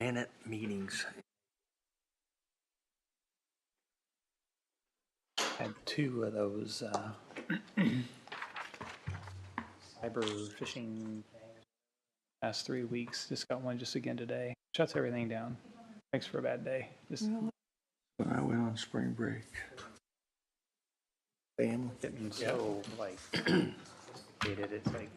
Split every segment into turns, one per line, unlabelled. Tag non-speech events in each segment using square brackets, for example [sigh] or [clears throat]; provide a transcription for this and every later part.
minute meetings. Had two of those, uh, [clears throat] cyber phishing things last three weeks. Just got one just again today. Shuts everything down. Makes for a bad day. Just
When I went on spring break. Family.
getting so like, hated. It's like,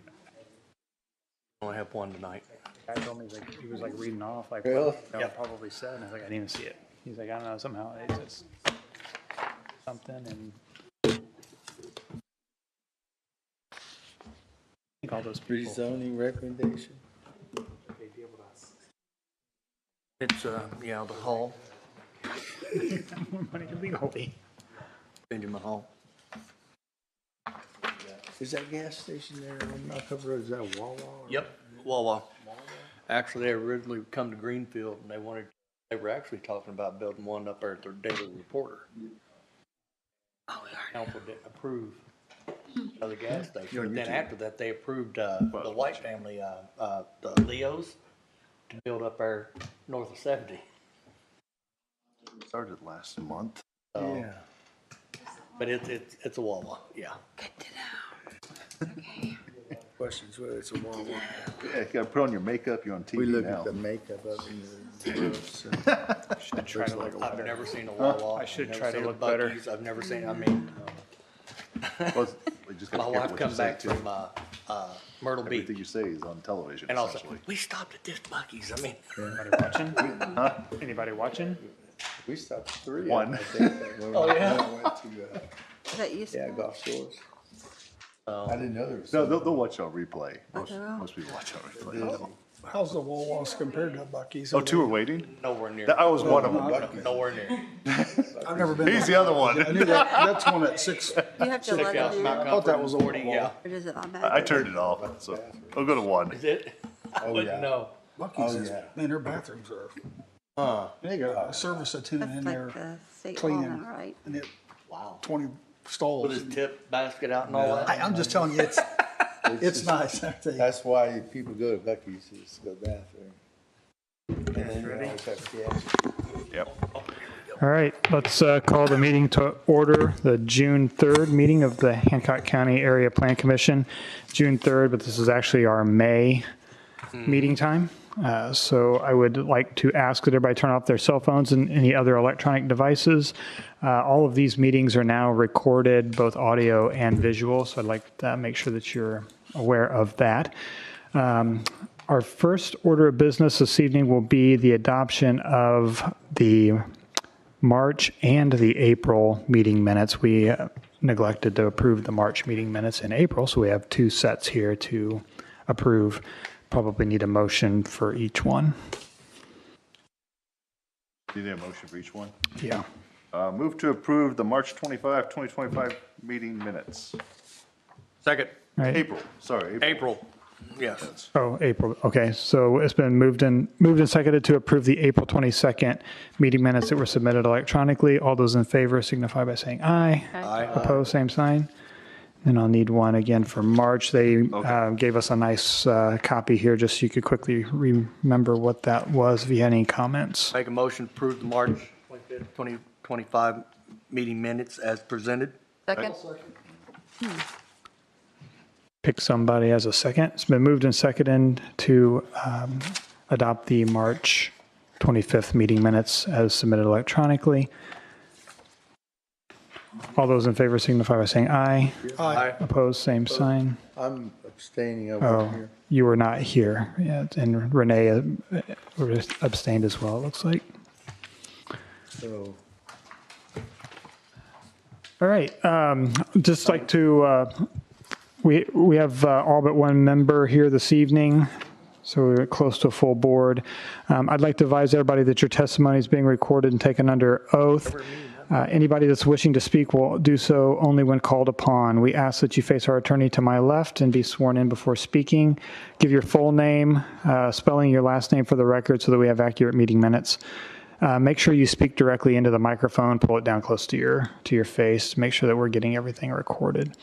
Only have one tonight.
guy told me like, he was like reading off like,
Really?
what I probably said. And I was like, I didn't even see it. He's like, I don't know, somehow it's just something and. I think all those people.
Rezoning recommendation.
It's, uh, yeah, the hall,
More money legally.
Benjamin Hall.
Is that gas station there on Knockup Road, is that Wawa? or-
Yep, Wawa. Actually, they originally come to Greenfield and they wanted, they were actually talking about building one up there at their daily reporter. Oh, Council didn't approve of the gas
You're
station. Then
YouTube.
after that, they approved, uh, the White family, uh, uh, the Leos to build up there north of seventy.
Started last month.
So,
Yeah.
But it's, it's, it's a Wawa, yeah.
Questions whether it's a Wawa.
Yeah, you gotta put on your makeup, you're on
We
TV
look at
now. [laughs]
the makeup of it. [laughs] Should
try to look
I've never seen a Wawa.
I should
I've never
try to
seen a
look better.
Buc-ee's, I've never seen, I mean,
Well, you
[laughs]
just gotta
my
be careful
wife
what
come
you say,
back
too.
from, uh, uh, Myrtle
Everything
Beach.
you say is on television
And I'll say,
essentially.
we stopped at this Buc-ee's, I mean,
Anybody watching? Anybody watching?
We stopped at three.
One. [laughs]
I think, that when we
Oh, yeah.
went to, uh,
That used
Yeah,
to,
golf shores.
Oh.
I didn't know there was.
No, they'll, they'll watch on replay. Most,
they will.
most people watch on replay.
How's the Wawa's compared to Bucky's?
Oh, two are waiting?
nowhere near,
That- I was one of them.
Buc-ee's.
nowhere near.
I've never been.
He's
there.
the other
I
one.
knew that, that's one at six.
you have to let
Yeah,
them do
Mount
that,
thought that
Comfort,
was a
forty, yeah.
Wawa.
or does it automatically?
I turned it off, so I'll go to one.
Is it? [laughs] I
yeah.
wouldn't know.
Bucky's
Oh,
is,
yeah.
man, their bathrooms are,
Huh,
they
Uh,
got a service attendant in
That's like
there
the state law
cleaning.
now, right?
and it,
wow.
twenty
Put
stalls.
his tip basket out and all
I,
that.
I'm just telling you,
[laughs]
it's, it's
just-
nice. I tell you.
That's why people go to Buc-ee's is to go bathroom. And then you always have gas.
Yep.
All right, let's uh, call the meeting to order, the June 3rd meeting of the Hancock County Area Plan Commission, June 3rd, but this is actually our May meeting time. Uh, So I would like to ask that everybody turn off their cell phones and any other electronic devices. Uh, All of these meetings are now recorded, both audio and visual, so I'd like to make sure that you're aware of that. Um, Our first order of business this evening will be the adoption of the March and the April meeting minutes. We uh, neglected to approve the March meeting minutes in April, so we have two sets here to approve. Probably need a motion for each one.
You need a motion for each one?
Yeah.
Uh, move to approve the March 25, 2025 meeting minutes.
Second,
Right.
April, sorry.
April, yes.
Oh, April. Okay, so it's been moved and moved and seconded to approve the April 22nd meeting minutes that were submitted electronically. All those in favor signify by saying aye. Aye. Opposed, same sign. And I'll need one again for March. They uh, gave us a nice uh, copy here, just so you could quickly remember what that was, if you had any comments.
Make a motion to approve the March twenty-fifth, twenty twenty-five meeting minutes as presented.
Second,
Pick somebody as a second. It's been moved and seconded to um, adopt the March 25th meeting minutes as submitted electronically. All those in favor signify by saying aye.
Aye.
Opposed, same sign.
I'm abstaining over
Oh,
here.
you were not here. Yeah, And Renee uh, abstained as well, it looks like.
So
All right, um, just like to, uh, we, we have uh, all but one member here this evening, so we're close to a full board. Um, I'd like to advise everybody that your testimony is being recorded and taken under oath. Uh, Anybody that's wishing to speak will do so only when called upon. We ask that you face our attorney to my left and be sworn in before speaking. Give your full name, uh, spelling your last name for the record so that we have accurate meeting minutes. Uh, make sure you speak directly into the microphone. Pull it down close to your to your face. Make sure that we're getting everything recorded.